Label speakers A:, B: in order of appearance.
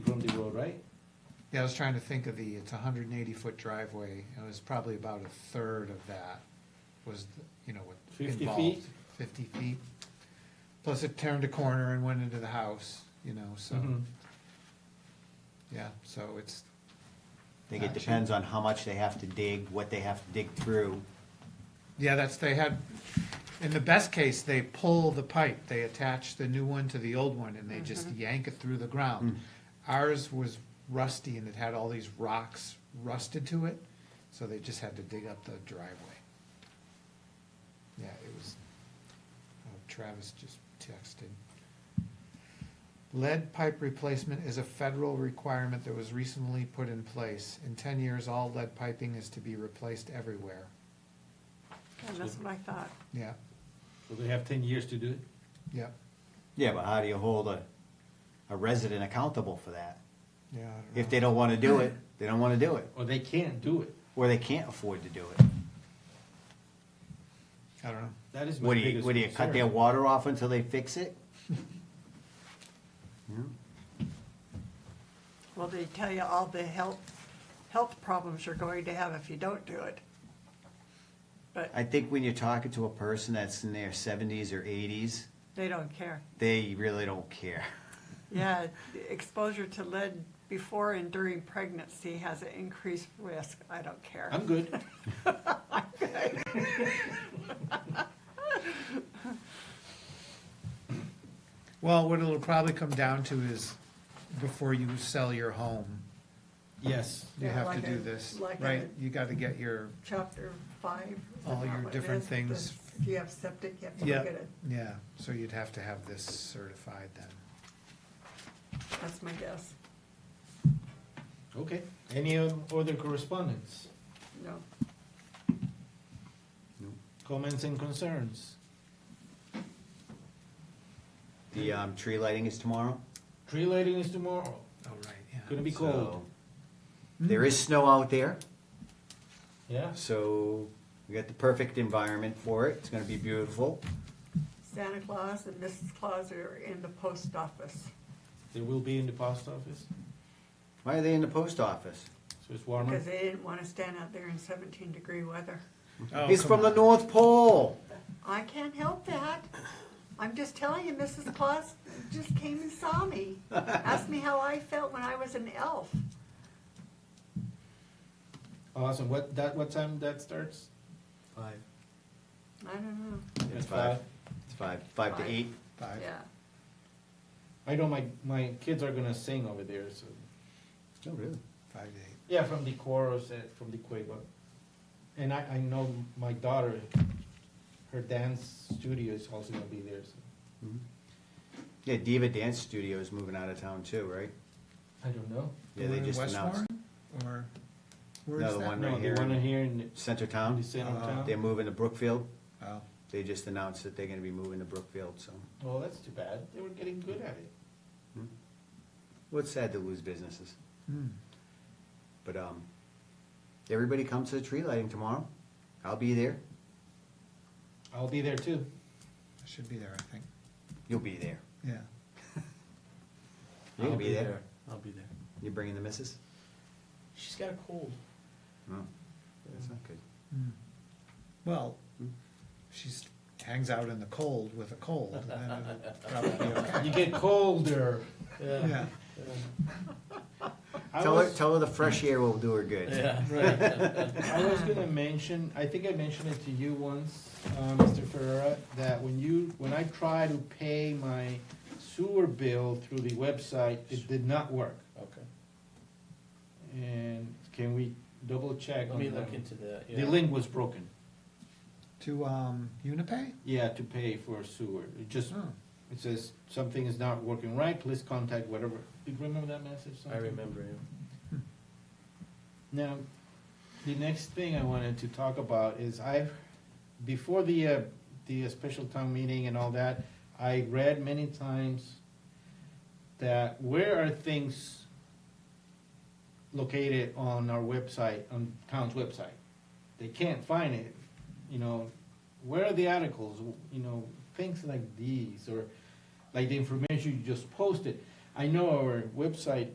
A: Yeah, I was trying to think of the, it's a hundred and eighty foot driveway, and it was probably about a third of that was, the- you know, what
B: 50
A: involved.
B: feet?
A: Fifty feet. Plus it turned a corner and went into the house, you know, so,
B: Mhm.
A: yeah, so it's,
C: I think it
A: Gotcha.
C: depends on how much they have to dig, what they have to dig through.
A: yeah, that's, they had, in the best case, they pull the pipe, they attach the new one to the old one, and they just yank it through the ground. Ours was rusty and it had all these rocks rusted to it, so they just had to dig up the driveway. Yeah, it was, oh, Travis just texted. Lead pipe replacement is a federal requirement that was recently put in place. In ten years, all lead piping is to be replaced everywhere.
D: Yeah, that's what I thought.
A: Yeah,
B: So they have ten years to do it?
A: yeah,
C: Yeah, but how do you hold a, a resident accountable for that?
A: yeah. I
C: If
A: don't
C: they
A: know.
C: don't wanna do it, they don't wanna do it,
B: Or they can't do it?
C: or they can't afford to do it.
A: I don't know.
B: That is my
C: What do you,
B: biggest concern.
C: what do you, cut their water off until they fix it?
D: Well, they tell you all the health, health problems you're going to have if you don't do it. But
C: I think when you're talking to a person that's in their seventies or eighties,
D: they don't care.
C: they really don't care.
D: Yeah, exposure to lead before and during pregnancy has an increased risk. I don't care.
B: I'm good.
A: Well, what it'll probably come down to is before you sell your home,
B: Yes.
A: you
D: Yeah,
A: have to
D: like
A: do
D: a-
A: this,
D: like a-
A: right? You gotta get your,
D: Chapter five. is
A: All
D: that
A: your
D: what it
A: different
D: is?
A: things.
D: The- If you have septic, you have to
A: yeah,
D: look at it.
A: yeah, so you'd have to have this certified then.
D: That's my guess.
B: Okay. Any um, other correspondence,
D: No.
B: comments and concerns?
C: The, um, tree lighting is tomorrow.
B: Tree lighting is tomorrow.
A: Oh, right, yeah.
B: Gonna be
C: so
B: cold.
C: There is snow out there.
B: Yeah.
C: So we got the perfect environment for it. It's going to be beautiful.
D: Santa Claus and Mrs. Claus are in the post office.
B: They will be in the post office,
C: Why are they in the post office?
B: so it's warmer.
D: Because they didn't want to stand out there in seventeen degree weather.
A: Oh,
C: He's
A: come
C: from the
A: on.
C: North Pole.
D: I can't help that. I'm just telling you, Mrs. Claus just came and saw me. Asked me how I felt when I was an elf.
B: Awesome. What, that, what time that starts?
C: Five.
D: I don't know.
C: It's five. It's five. Five to eight.
A: Five.
D: Yeah.
B: I know my, my kids are gonna sing over there, so.
C: Oh, really?
A: Five to eight.
B: Yeah, from the chorus, uh, from the Queba. And I, I know my daughter, her dance studio is also gonna be there, so.
C: Yeah, Diva Dance Studio is moving out of town too, right?
B: I don't know.
C: Yeah,
A: The
C: they
A: one in
C: just
A: West
C: announced
A: Warren? Or, where
C: No,
A: is
C: the
A: that?
C: one-
B: No,
C: right
B: the
C: here
B: one
C: in-
B: here in
C: Center
B: the
C: Town.
B: center
A: Uh,
B: of
C: They're
B: town.
C: moving to Brookfield.
A: Oh,
C: They just announced that they're going to be moving to Brookfield. So,
B: Well, that's too bad. They were getting good at it.
C: well, it's sad to lose businesses,
A: hmm,
C: but um, everybody comes to the tree lighting tomorrow. I'll be there.
B: I'll be there too.
A: I should be there, I think,
C: You'll be there.
A: yeah.
C: You'll
E: I'll
C: be there.
E: I'll be there.
C: You bringing the missus?
E: She's got a cold.
C: No, that's not good.
A: Hmm. Well, she hangs out in the cold with a cold, and then it'll probably be okay.
B: You get colder.
A: Yeah,
B: I
C: Tell her,
B: was,
C: tell her the fresh air will do her good.
E: Yeah.
B: I was gonna mention, I think I mentioned it to you once, uh, Mr. Ferrera, that when you, when I try to pay my sewer bill through the website, it did not work.
E: Okay.
B: And can we double check?
E: Let me
B: on
E: look
B: that?
E: into that.
B: The
E: yeah.
B: link was broken.
A: to, um, Unipay?
B: Yeah, to pay for sewer. It just,
E: Hmm.
A: Oh.
B: it says something is not working right, please contact whatever. Do you remember that message?
E: I
B: something?
E: remember him.
B: Now, the next thing I wanted to talk about is I've, before the, uh, the uh, special town meeting and all that, I read many times that where are things located on our website, on town's website? They can't find it, you know, where are the articles, you know, things like these, or like the information you just posted. I know our website